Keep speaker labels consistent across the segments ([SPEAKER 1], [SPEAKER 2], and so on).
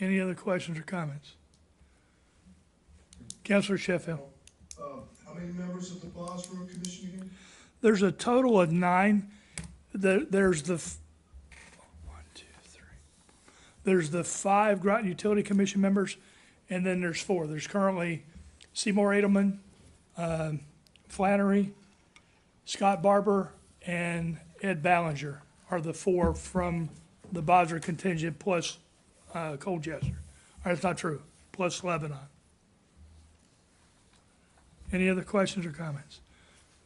[SPEAKER 1] Any other questions or comments? Counselor Sheffield.
[SPEAKER 2] Uh, How many members of the Boswell Road Commission again?
[SPEAKER 1] There's a total of nine. The- There's the, f- one, two, three. There's the five Groton Utility Commission members, and then there's four. There's currently Seymour Edelman, um, Flannery, Scott Barber, and Ed Ballinger are the four from the Bosra contingent plus uh, Colchester. Or That's not true, plus Lebanon. Any other questions or comments?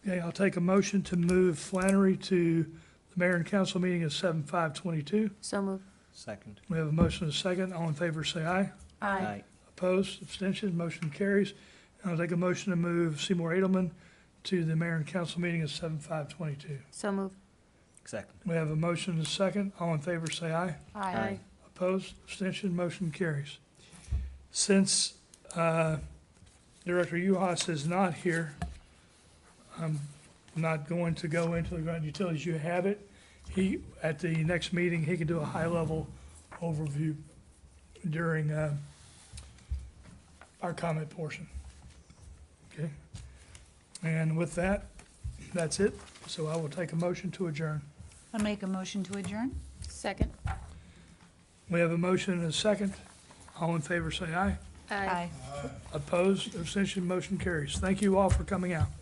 [SPEAKER 1] Okay, I'll take a motion to move Flannery to the mayor and council meeting at seven five twenty-two.
[SPEAKER 3] So moved.
[SPEAKER 4] Second.
[SPEAKER 1] We have a motion and a second. All in favor, say aye.
[SPEAKER 4] Aye.
[SPEAKER 1] Opposed, abstentions, motion carries. And I'll take a motion to move Seymour Edelman to the mayor and council meeting at seven five twenty-two.
[SPEAKER 3] So moved.
[SPEAKER 4] Second.
[SPEAKER 1] We have a motion and a second. All in favor, say aye.
[SPEAKER 4] Aye.
[SPEAKER 1] Opposed, abstention, motion carries. Since uh, Director Uhas is not here, I'm not going to go into the ground utilities. You have it. He, at the next meeting, he can do a high-level overview during uh, our comment portion. Okay? And with that, that's it. So I will take a motion to adjourn.
[SPEAKER 5] I make a motion to adjourn?
[SPEAKER 3] Second.
[SPEAKER 1] We have a motion and a second. All in favor, say aye.
[SPEAKER 5] Aye.
[SPEAKER 1] Opposed, abstention, motion carries. Thank you all for coming out.